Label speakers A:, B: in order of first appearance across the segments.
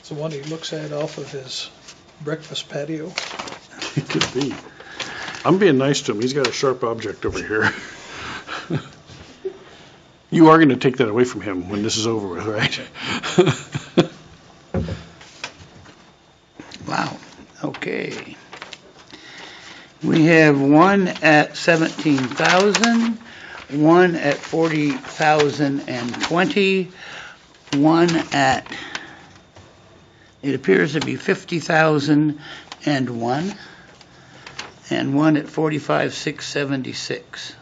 A: It's the one he looks at off of his breakfast patio.
B: It could be. I'm being nice to him. He's got a sharp object over here. You are going to take that away from him when this is over with, right?
C: Wow, okay. We have one at 17,000, one at 40,020, one at, it appears to be 50,001, and one at 45,676.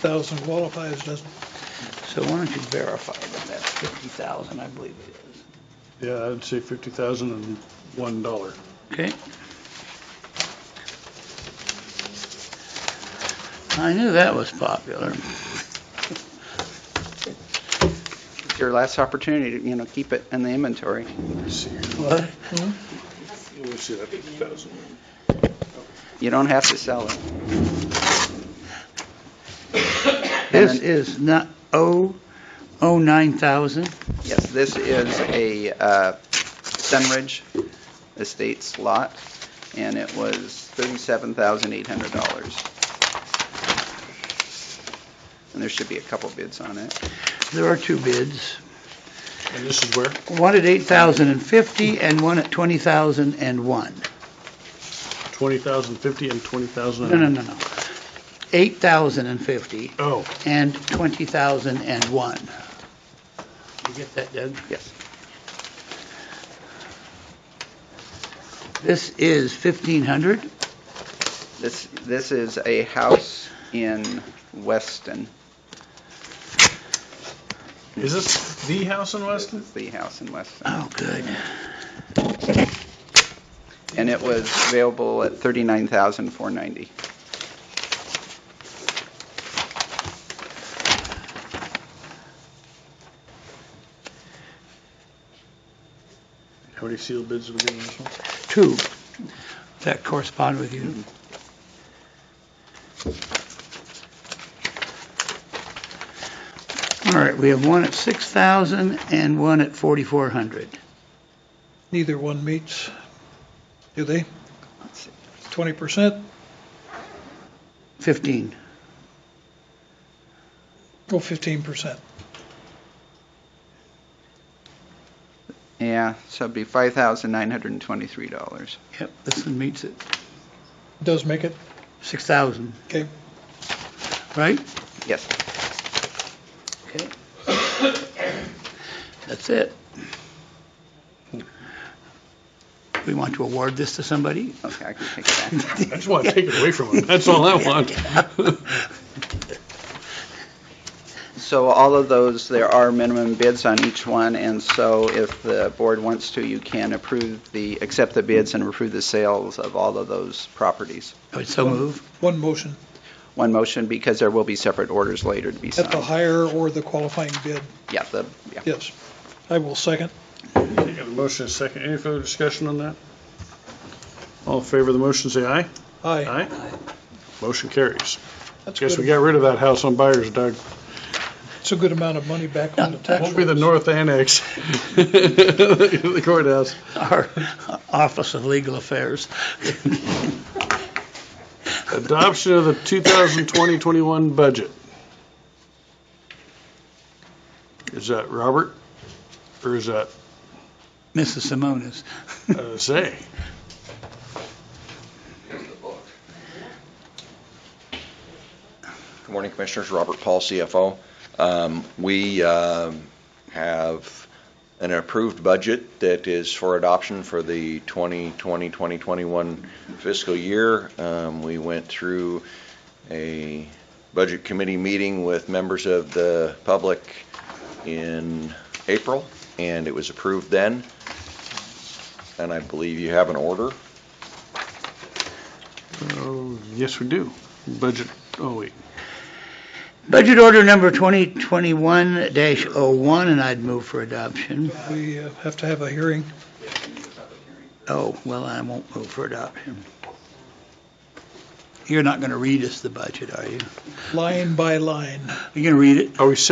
A: 50,000 qualifies, doesn't
C: So why don't you verify that that's 50,000, I believe it is.
B: Yeah, I'd say fifty thousand and one dollar.
C: Okay. I knew that was popular.
D: It's your last opportunity to, you know, keep it in the inventory.
B: Let me see. here. Hmm?
C: What?
B: Let me see that fifty thousand.
D: You don't have to sell it.
C: This is not, oh, oh, 9,000?
D: Yes, this is a uh, Sunridge Estates lot, and it was $37,800. And there should be a couple bids on it.
C: There are two bids,
B: And this is where?
C: one at 8,050 and one at 20,001.
B: Twenty thousand fifty and twenty thousand?
C: No, no, no, no. 8,050
B: Oh,
C: and 20,001. You get that, Doug?
D: Yes.
C: This is 1,500?
D: This, this is a house in Weston.
B: is this the house in
D: This
B: Weston?
D: is the house in Weston.
C: Oh, good.
D: And it was available at $39,490.
B: How many sealed bids did we get on this one?
C: Two. Does that correspond with you? All right, we have one at 6,000 and one at 4,400.
A: neither one meets, do they?
D: Let's see.
A: 20%?
C: 15.
A: Go 15%.
D: Yeah, so it'd be $5,923.
C: Yep, this one meets it.
A: Does make it.
C: 6,000.
A: Okay.
C: Right?
D: Yes.
C: Okay. That's it. We want to award this to somebody?
D: Okay, I can take it back.
B: I just want to take it away from him. That's all I want.
D: So all of those, there are minimum bids on each one, and so if the board wants to, you can approve the, accept the bids and approve the sales of all of those properties.
C: I would so move.
A: One motion
D: One motion, because there will be separate orders later to be
A: at the
D: signed.
A: higher or the qualifying bid.
D: Yeah, the, yeah.
A: Yes. I will second.
B: We got a motion and a second. Any further discussion on that? All in favor of the motion, say aye.
A: Aye.
B: Motion carries.
A: That's
B: Guess we
A: good.
B: got rid of that house on Byers, Doug.
A: It's a good amount of money back on the tax.
B: Won't be the
A: rolls.
B: north annex. The courthouse.
C: Our Office of Legal Affairs.
B: Adoption of the 2020-21 budget. Is that Robert? Or is that,
C: Mrs. Simonis.
B: uh, say?
E: Good morning, Commissioners. Robert Paul, CFO. Um, We um, have an approved budget that is for adoption for the 2020-2021 fiscal year. Um, We went through a budget committee meeting with members of the public in April, and it was approved then. And I believe you have an order.
B: Oh, Yes, we do. Budget, oh, wait.
C: Budget order number 2021-01, and I'd move for adoption.
A: We uh, have to have a hearing.
C: Oh, well, I won't move for adoption. You're not going to read us the budget, are you?
A: line by line.
C: You're going to read it?
B: Are we set